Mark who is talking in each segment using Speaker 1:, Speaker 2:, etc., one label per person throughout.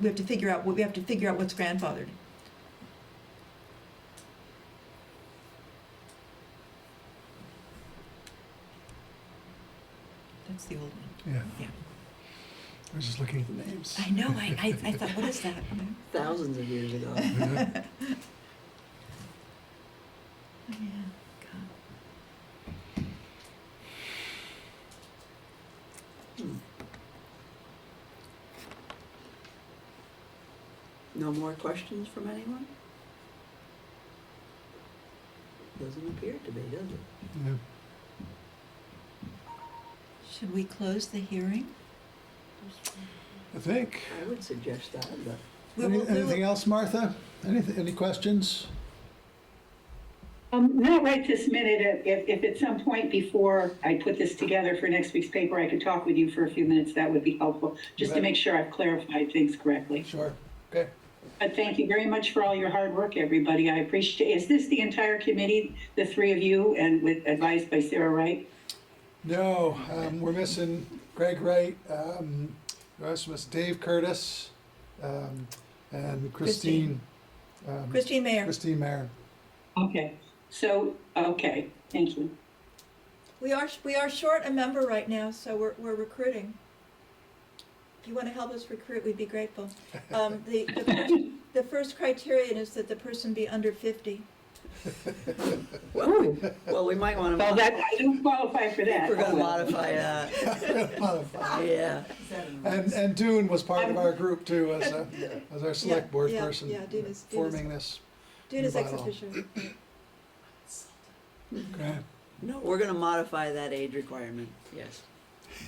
Speaker 1: we have to figure out, what we have to figure out what's grandfathered. That's the old one.
Speaker 2: Yeah.
Speaker 1: Yeah.
Speaker 2: I was just looking at the names.
Speaker 1: I know, I, I, I thought, what is that?
Speaker 3: thousands of years ago.
Speaker 2: Yeah.
Speaker 1: Oh, Yeah, God.
Speaker 3: No more questions from anyone? Doesn't appear to be, does it?
Speaker 2: Yeah.
Speaker 1: Should we close the hearing?
Speaker 2: I think.
Speaker 3: I would suggest that, but
Speaker 1: We
Speaker 2: Any,
Speaker 1: will- we will-
Speaker 2: anything else, Martha? Anything, any questions?
Speaker 4: Um, not right this minute. If, if at some point before I put this together for next week's paper, I could talk with you for a few minutes, that would be helpful, just to
Speaker 2: Right.
Speaker 4: make sure I've clarified things correctly.
Speaker 2: Sure. Okay.
Speaker 4: But thank you very much for all your hard work, everybody. I appreciate, is this the entire committee, the three of you, and with, advised by Sarah Wright?
Speaker 2: No, um, we're missing Greg Wright, um, we also miss Dave Curtis, um, and Christine. um,
Speaker 1: Christine Mayer,
Speaker 2: Christine Mayer.
Speaker 4: Okay. So, okay, thank you.
Speaker 1: we are, we are short a member right now, so we're, we're recruiting. If you want to help us recruit, we'd be grateful. Um, the, the first, the first criterion is that the person be under fifty.
Speaker 3: well, well, we might want to.
Speaker 4: Well, that, I don't qualify for that.
Speaker 3: We're gonna
Speaker 4: Oh, well.
Speaker 3: modify that, yeah.
Speaker 2: And, and Dune was part of our group too, as, a- as our select board
Speaker 1: yeah,
Speaker 2: person.
Speaker 1: yeah, Dune is- Dune is-
Speaker 2: Forming this.
Speaker 1: Dude is ex
Speaker 2: Bylaw.
Speaker 1: officio.
Speaker 2: Okay.
Speaker 3: No, we're gonna modify that age requirement, yes.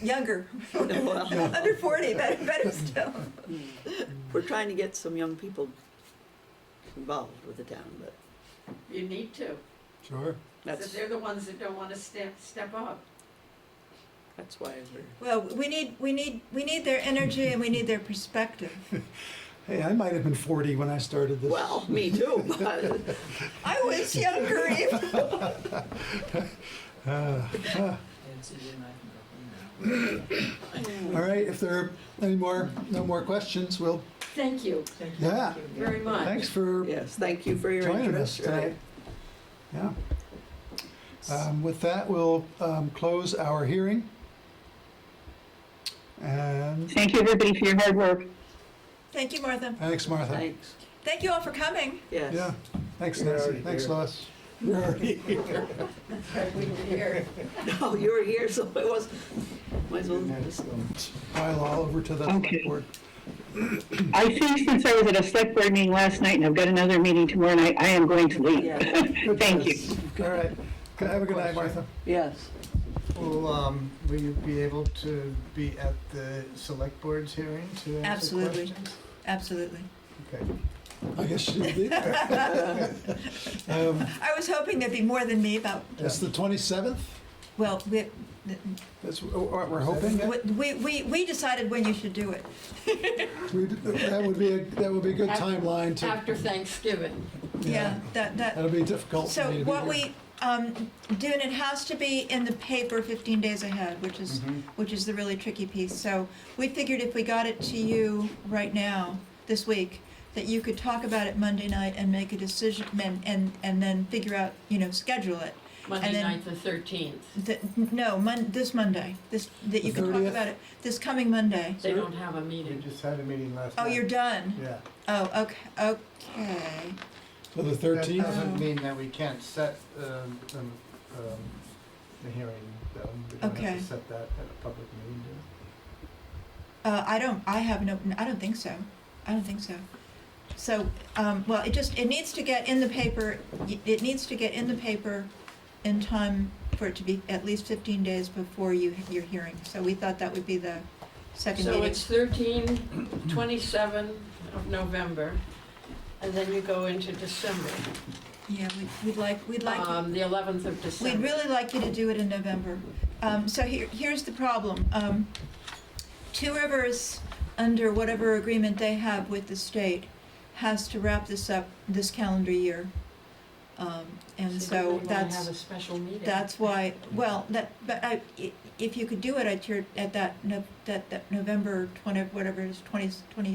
Speaker 1: Younger,
Speaker 3: Well,
Speaker 1: under forty, better, better still.
Speaker 3: We're trying to get some young people involved with the town, but
Speaker 5: You need to.
Speaker 2: Sure.
Speaker 5: That's,
Speaker 3: that's,
Speaker 5: they're the ones that don't want to step, step up.
Speaker 3: that's why we're,
Speaker 1: Well, we need, we need, we need their energy and we need their perspective.
Speaker 2: Hey, I might have been forty when I started this.
Speaker 3: well, me too, but
Speaker 1: I was younger even.
Speaker 2: Ah. All right, if there are any more, no more questions, we'll,
Speaker 5: Thank you.
Speaker 2: yeah,
Speaker 5: Very much.
Speaker 2: thanks for
Speaker 3: yes, thank you for your
Speaker 2: joining us
Speaker 3: interest,
Speaker 2: tonight.
Speaker 3: right?
Speaker 2: Yeah. Um, With that, we'll um, close our hearing. And
Speaker 4: Thank you, everybody, for your hard work.
Speaker 1: Thank you, Martha.
Speaker 2: thanks, Martha.
Speaker 3: Thanks,
Speaker 1: Thank you all for coming.
Speaker 3: yes.
Speaker 2: Yeah, thanks
Speaker 6: You're
Speaker 2: Nancy,
Speaker 6: already
Speaker 2: thanks
Speaker 6: here.
Speaker 2: Lois. You're already here.
Speaker 3: Oh, you were here, so it was, might as well just
Speaker 2: Pile all over to the
Speaker 4: Okay.
Speaker 2: select board.
Speaker 4: I think since I was at a select board meeting last night and I've got another meeting tomorrow night, I am going to
Speaker 3: Yeah.
Speaker 4: leave. Thank you.
Speaker 2: All right, have a good night, Martha.
Speaker 3: Yes,
Speaker 6: Will, um, will you be able to be at the select board's hearing to answer
Speaker 1: Absolutely.
Speaker 6: questions?
Speaker 1: Absolutely.
Speaker 6: Okay.
Speaker 2: I guess she'll be there. Um,
Speaker 1: I was hoping there'd be more than me about,
Speaker 2: It's the 27th,
Speaker 1: well, we,
Speaker 2: that's what we're hoping.
Speaker 1: we, we, we decided when you should do it.
Speaker 2: We- That would be, a that would be a good timeline to,
Speaker 5: After Thanksgiving.
Speaker 1: Yeah, that, that,
Speaker 2: that'll be difficult for
Speaker 1: So
Speaker 2: me to be
Speaker 1: what
Speaker 2: here.
Speaker 1: we, um, Dune, it has to be in the paper fifteen days ahead, which is, which is the really tricky piece. So we figured if we got it to you right now, this week, that you could talk about it Monday night and make a decision, and, and, and then figure out, you know, schedule it.
Speaker 5: Monday
Speaker 1: then-
Speaker 5: night, the thirteenth.
Speaker 1: Th no, Mon, this Monday, this, that you
Speaker 2: The
Speaker 1: can talk
Speaker 2: 30th?
Speaker 1: about it, this coming Monday.
Speaker 5: They
Speaker 6: Sure.
Speaker 5: don't have a
Speaker 6: We
Speaker 5: meeting.
Speaker 6: just had a meeting last
Speaker 1: Oh,
Speaker 6: night.
Speaker 1: you're done?
Speaker 6: Yeah.
Speaker 1: Oh, okay, okay.
Speaker 2: For the
Speaker 6: That
Speaker 2: 13th?
Speaker 6: doesn't mean that we can't set, um, um, um, the hearing, though. We don't have
Speaker 1: Okay.
Speaker 6: to set that at a public meeting, do we?
Speaker 1: Uh, I don't, I have no, I don't think so. I don't think so. So, um, well, it just, it needs to get in the paper, it needs to get in the paper in time for it to be at least fifteen days before you, your hearing. So we thought that would be the second
Speaker 5: So
Speaker 1: meeting.
Speaker 5: it's thirteen, twenty-seven of November, and then you go into December.
Speaker 1: Yeah, we'd, we'd like, we'd like.
Speaker 5: Um, the eleventh of December.
Speaker 1: We'd really like you to do it in November. Um, so here, here's the problem. Um, Two Rivers, under whatever agreement they have with the state, has to wrap this up this calendar year. Um, and so
Speaker 5: So you might have
Speaker 1: that's,
Speaker 5: a special meeting.
Speaker 1: that's why, well, that, but I, i- if you could do it at your, at that, no- that, that November twenty, whatever it is, twenty, twenty